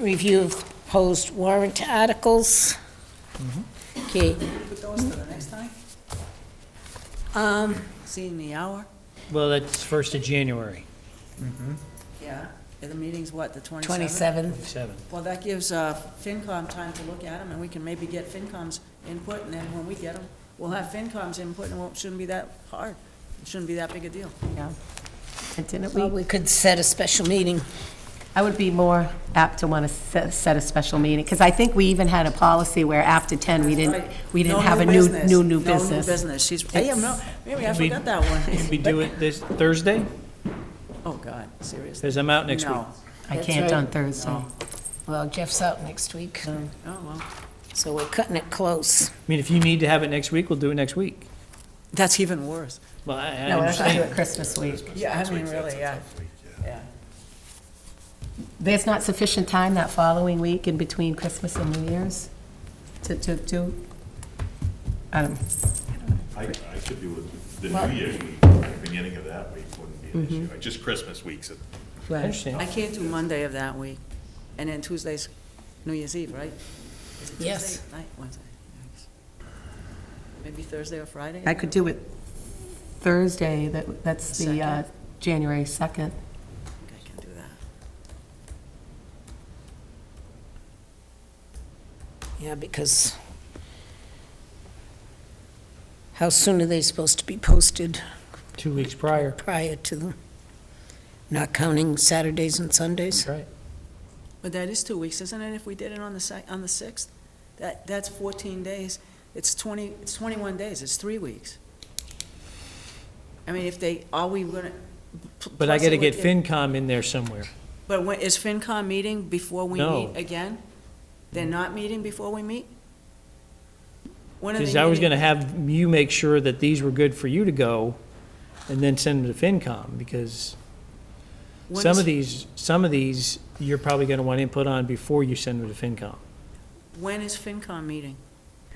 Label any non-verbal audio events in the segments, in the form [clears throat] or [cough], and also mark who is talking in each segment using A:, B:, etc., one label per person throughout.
A: review of proposed warrant articles. Okay,
B: Put those to the next time,
A: um,
B: seeing the hour,
C: Well, that's first of January,
B: yeah, and the meeting's what, the twenty-seventh?
A: 27th,
C: seven.
B: Well, that gives uh, FinCom time to look at them, and we can maybe get FinCom's input, and then when we get them, we'll have FinCom's input, and it won't- shouldn't be that hard, it shouldn't be that big a deal.
D: Yeah. And didn't
A: well,
D: we,
A: we could set a special meeting.
D: I would be more apt to want to set a special meeting, because I think we even had a policy where after 10, we didn't, we didn't
B: No
D: have a new,
B: business.
D: new,
B: No
D: new
B: new
D: business.
B: business, she's, hey, I'm not- maybe I
C: We-
B: forgot that one.
C: Can we do it this Thursday?
B: [laughs] Oh, God, seriously?
C: Because I'm out next week.
B: No.
D: I
A: That's
D: can't
A: right.
D: on Thursday.
A: Well, Jeff's out next week,
B: Oh, well,
A: so we're cutting it close.
C: I mean, if you need to have it next week, we'll do it next week.
B: that's even worse.
C: Well, I I
D: No, we're not going to do
C: understand.
D: it Christmas week.
B: Yeah, I mean, really, yeah, yeah.
D: There's not sufficient time that following week in between Christmas and New Year's to, to, to, I don't,
E: I, I could do it the New Year's week, the beginning of that week wouldn't be
B: Mm-hmm.
E: an issue, just Christmas week's. a-
C: I
B: I
C: understand.
B: can't do Monday of that week, and then Tuesday's New Year's Eve, right? Is it
A: Yes.
B: Tuesday Night, Wednesday. Thanks. Maybe Thursday or Friday?
D: I could do it Thursday, that, that's the, uh,
B: Second.
D: January 2nd.
B: I think I can do that.
A: Yeah, because how soon are they supposed to be posted
C: Two weeks prior,
A: prior to them? Not counting Saturdays and Sundays?
C: right?
B: But that is two weeks, isn't it, if we did it on the sec, on the sixth? That, that's fourteen days, it's twenty, it's twenty-one days, it's three weeks. I mean, if they, are we gonna? p-
C: But I
B: plus it
C: got to
B: would
C: get FinCom in there somewhere.
B: But when, is FinCom meeting before we
C: No.
B: meet again? They're not meeting before we meet? When are they
C: Because I was
B: meeting?
C: going to have you make sure that these were good for you to go and then send them to FinCom because
B: When
C: some
B: is-
C: of these, some of these, you're probably going to want input on before you send them to FinCom.
B: When is FinCom meeting?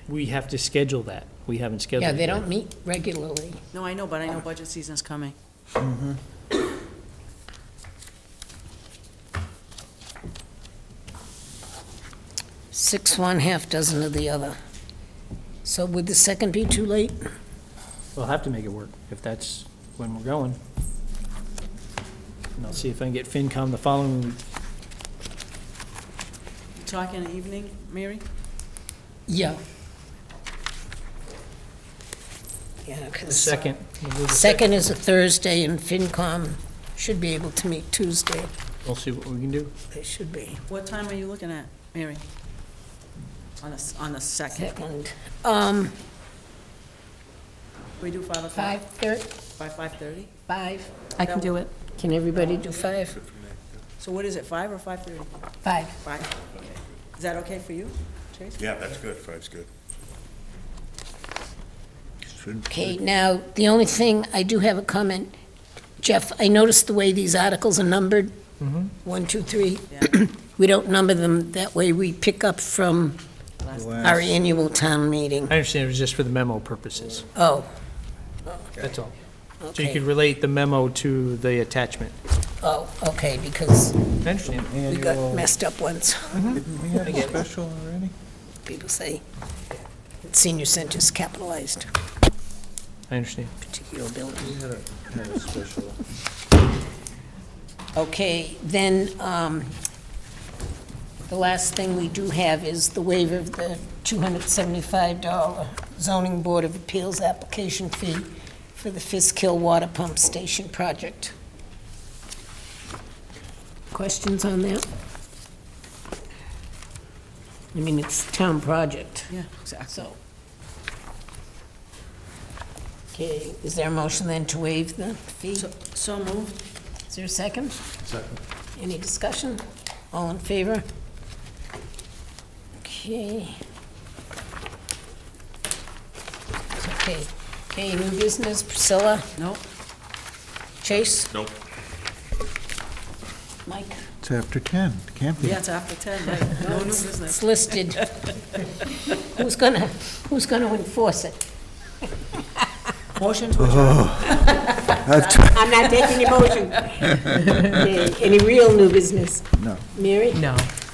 C: We have to schedule that. We haven't scheduled
A: Yeah,
C: it.
A: they
C: yet.
A: don't meet regularly.
B: No, I know, but I know budget season's coming.
A: Six one, half dozen of the other. So would the second be too late?
C: We'll have to make it work if that's when we're going. And I'll see if I can get FinCom the following week.
B: You Talking evening, Mary?
A: Yeah. Yeah, because.
C: Second. we'll do the
A: Second is a Thursday, and FinCom should be able to meet Tuesday.
C: We'll see what we can do.
A: They should be.
B: What time are you looking at, Mary? On the, s- on the second?
A: Second, um,
B: We do five o'clock?
A: five thirty,
B: By five-thirty?
A: five.
D: I can do it.
A: Can everybody do five?
B: So what is it, five or five-thirty?
A: Five.
B: Five, okay. Is that okay for you, Chase?
E: Yeah, that's good, five's good.
A: Okay, now, the only thing, I do have a comment. Jeff, I noticed the way these articles are numbered. One, two, three. [clears throat] We don't number them, that way we pick up from
B: Last-
A: our annual town meeting.
C: I understand it was just for the memo purposes.
A: Oh,
C: That's all. So you could
A: okay.
C: relate the memo to the attachment.
A: Oh, okay, because
C: I understand.
A: we got messed up once.
F: Didn't we have a special already?
A: People say that senior center's capitalized,
C: I understand.
A: particular building.
F: We had a, had a special.
A: Okay, then, um, the last thing we do have is the waiver of the $275 zoning board of appeals application fee for the Fiskill Water Pump Station project. Questions on that? I mean, it's town project,
B: Yeah, exactly.
A: so. Okay, is there a motion then to waive the fee?
B: So- So moved,
A: Is there a second? Second. Any discussion? All in favor? Okay. Okay, okay, new business, Priscilla,
B: no?
A: Chase,
E: Nope.
A: Mike,
F: It's after 10, can't be.
B: Yeah, it's after ten, right? No new business.
A: it's listed. Who's gonna, who's gonna enforce it?
B: Motion to adjourn.
A: I'm [laughs] not taking your motion. Okay, Any real new business?
F: No.
A: Mary?
D: No.